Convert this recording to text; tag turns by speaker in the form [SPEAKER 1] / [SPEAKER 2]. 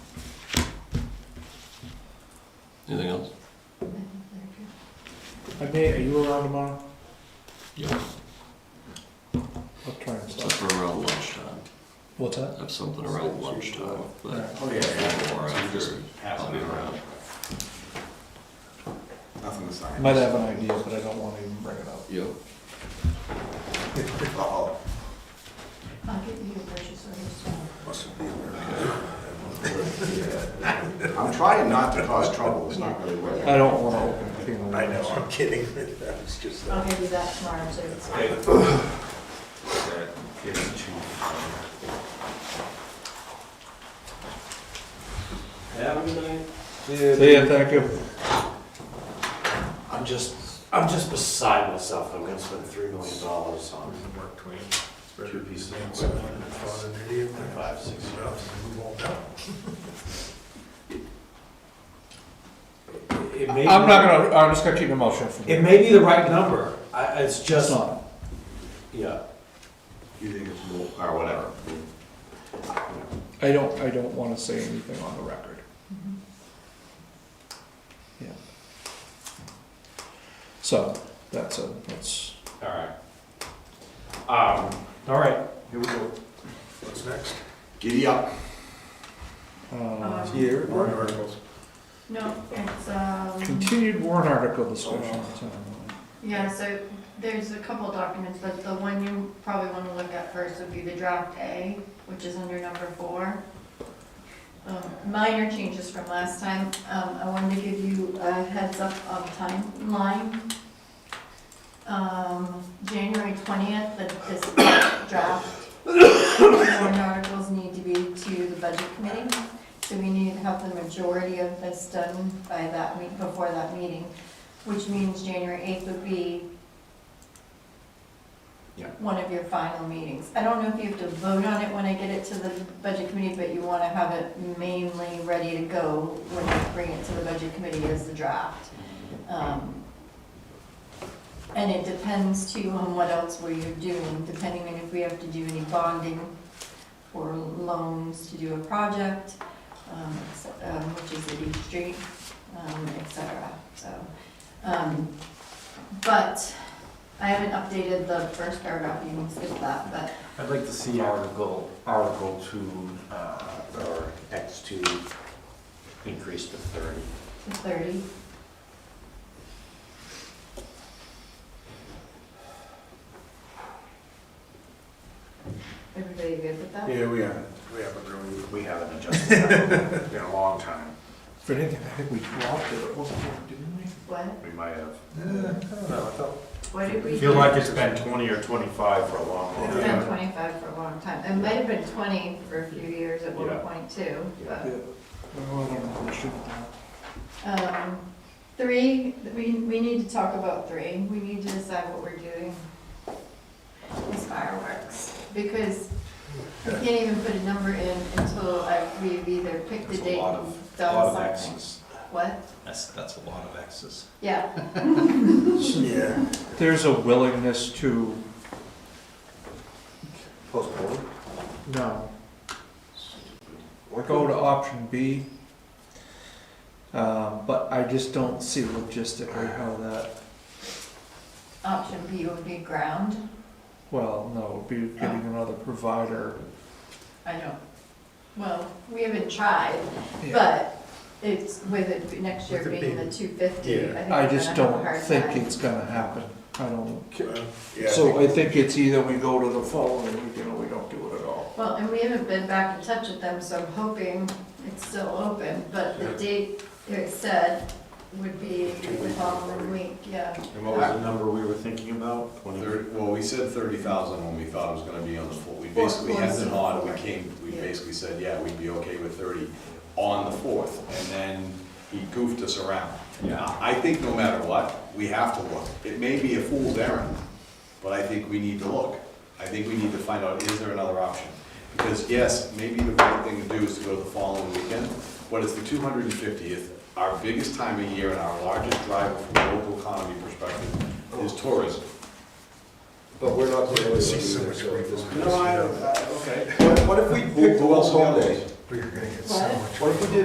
[SPEAKER 1] Anything else?
[SPEAKER 2] Hi, Nate, are you around tomorrow?
[SPEAKER 1] Yeah.
[SPEAKER 2] I'll try and stop.
[SPEAKER 1] Except for around lunchtime.
[SPEAKER 2] What's
[SPEAKER 1] I
[SPEAKER 2] that?
[SPEAKER 1] have something around lunchtime, but
[SPEAKER 2] Alright.
[SPEAKER 3] Oh, yeah, yeah.
[SPEAKER 1] before or after, I'll be around.
[SPEAKER 3] Nothing to
[SPEAKER 2] I
[SPEAKER 3] sign.
[SPEAKER 2] Might have an idea, but uh, I don't wanna even bring it up.
[SPEAKER 1] Yep.
[SPEAKER 3] Oh,
[SPEAKER 4] I'll get you a purchase order soon.
[SPEAKER 3] must be American. I'm trying not to cause trouble, it's not really working.
[SPEAKER 2] I don't wanna open a can of
[SPEAKER 3] I know,
[SPEAKER 2] worms.
[SPEAKER 3] I'm kidding. It's just.
[SPEAKER 4] I'll give you that tomorrow too.
[SPEAKER 5] Have a good night.
[SPEAKER 2] See ya, thank you.
[SPEAKER 5] I'm just, I'm just beside myself. I'm gonna spend three million dollars on
[SPEAKER 3] Mark Twain.
[SPEAKER 5] two pieces of equipment.
[SPEAKER 3] Five,
[SPEAKER 5] Five, six years. It may
[SPEAKER 2] I'm not
[SPEAKER 5] be-
[SPEAKER 2] gonna, I'm just gonna keep the mouth shut for
[SPEAKER 5] It
[SPEAKER 2] you.
[SPEAKER 5] may be the right number. I, it's
[SPEAKER 2] It's
[SPEAKER 5] just,
[SPEAKER 2] not.
[SPEAKER 5] yeah.
[SPEAKER 3] You think it's more, or whatever.
[SPEAKER 2] I don't, I don't wanna say anything on the record. Mm-hmm. Yeah. So, that's a, that's,
[SPEAKER 5] All right. Um, all right.
[SPEAKER 3] Here we go. What's next? Giddy up.
[SPEAKER 2] uh,
[SPEAKER 4] Um,
[SPEAKER 2] here,
[SPEAKER 3] Warrant articles.
[SPEAKER 4] No, it's, um,
[SPEAKER 2] continued warrant article discussion. Time.
[SPEAKER 4] yeah, so there's a couple of documents, but the one you probably want to look at first would be the draft A, which is under number four. Um, Minor changes from last time. Um, I wanted to give you a heads up of timeline. Um, January twentieth, that this draft warrant articles need to be to the budget committee. So we need to have the majority of this done by that week, before that meeting, which means January 8th would be
[SPEAKER 3] Yeah.
[SPEAKER 4] one of your final meetings. I don't know if you have to vote on it when I get it to the budget committee, but you want to have it mainly ready to go when you bring it to the budget committee as the draft. Um, And it depends too on what else we're doing, depending on if we have to do any bonding for loans to do a project, um, so- um, which is at each street, um, et cetera, so. um, But I haven't updated the first paragraph, you can skip that, but
[SPEAKER 5] I'd like to see article, article two, uh, or X two increase to thirty.
[SPEAKER 4] the thirty. Everybody good with that?
[SPEAKER 3] Yeah, we are.
[SPEAKER 5] We haven't really, we haven't adjusted that in a long time.
[SPEAKER 2] If anything, I think we dropped it, wasn't it, didn't we?
[SPEAKER 4] What,
[SPEAKER 5] We might have.
[SPEAKER 3] Uh,
[SPEAKER 4] what did we
[SPEAKER 5] I
[SPEAKER 4] do?
[SPEAKER 5] feel like it's been twenty or twenty-five for a long, long
[SPEAKER 4] It's been
[SPEAKER 5] time.
[SPEAKER 4] twenty-five for a long time. It might have been twenty for a few years at one
[SPEAKER 5] Yeah.
[SPEAKER 4] point too, but.
[SPEAKER 2] Yeah. Well, I don't know, we should have.
[SPEAKER 4] Um, Three, we, we need to talk about three. We need to decide what we're doing with fireworks. Because I can't even put a number in until I, we've either picked a
[SPEAKER 5] There's a
[SPEAKER 4] date
[SPEAKER 5] lot
[SPEAKER 4] and
[SPEAKER 5] A lot
[SPEAKER 4] done
[SPEAKER 5] of
[SPEAKER 4] something.
[SPEAKER 5] X's.
[SPEAKER 4] What?
[SPEAKER 5] That's, that's a lot of X's.
[SPEAKER 4] Yeah,
[SPEAKER 3] Yeah.
[SPEAKER 2] There's a willingness to,
[SPEAKER 3] Postpone.
[SPEAKER 2] no, go to option B. Um, but I just don't see logistically how that,
[SPEAKER 4] option B would be ground.
[SPEAKER 2] well, no, it would be getting another provider.
[SPEAKER 4] I don't, well, we haven't tried, but it's with it next year
[SPEAKER 3] With it
[SPEAKER 4] being
[SPEAKER 3] being-
[SPEAKER 4] the two fifty.
[SPEAKER 3] Yeah.
[SPEAKER 2] I just don't think it's gonna happen, I don't, so
[SPEAKER 3] Yeah,
[SPEAKER 2] I think it's either we go to the following weekend or we don't do it at all.
[SPEAKER 4] Well, and we haven't been back in touch with them, so I'm hoping it's still open, but the
[SPEAKER 3] Yeah.
[SPEAKER 4] date it said would be
[SPEAKER 3] Two
[SPEAKER 4] the
[SPEAKER 3] weeks.
[SPEAKER 4] following week, yeah.
[SPEAKER 5] And what was the number we were thinking about?
[SPEAKER 6] Thir- Well, we said thirty thousand when we thought it was gonna be on the floor. We basically had it on, we came, we basically said, yeah, we'd be okay with thirty on the fourth, and then he goofed us around.
[SPEAKER 5] Yeah.
[SPEAKER 6] I think no matter what, we have to look. It may be a fool's errand, but I think we need to look. I think we need to find out, is there another option? Because yes, maybe the right thing to do is to go to the following weekend, but it's the two hundred and fiftieth, our biggest time of year and our largest driver from a local economy perspective is tourism.
[SPEAKER 7] But we're not the only ones
[SPEAKER 3] See so
[SPEAKER 7] either,
[SPEAKER 3] much
[SPEAKER 7] so this
[SPEAKER 3] No, I, I- okay.
[SPEAKER 7] What if we
[SPEAKER 6] Who-
[SPEAKER 7] picked
[SPEAKER 6] uh, who else
[SPEAKER 7] one
[SPEAKER 6] holidays?
[SPEAKER 7] day?
[SPEAKER 3] But you're gonna get
[SPEAKER 4] What?
[SPEAKER 3] so much.
[SPEAKER 7] What if we did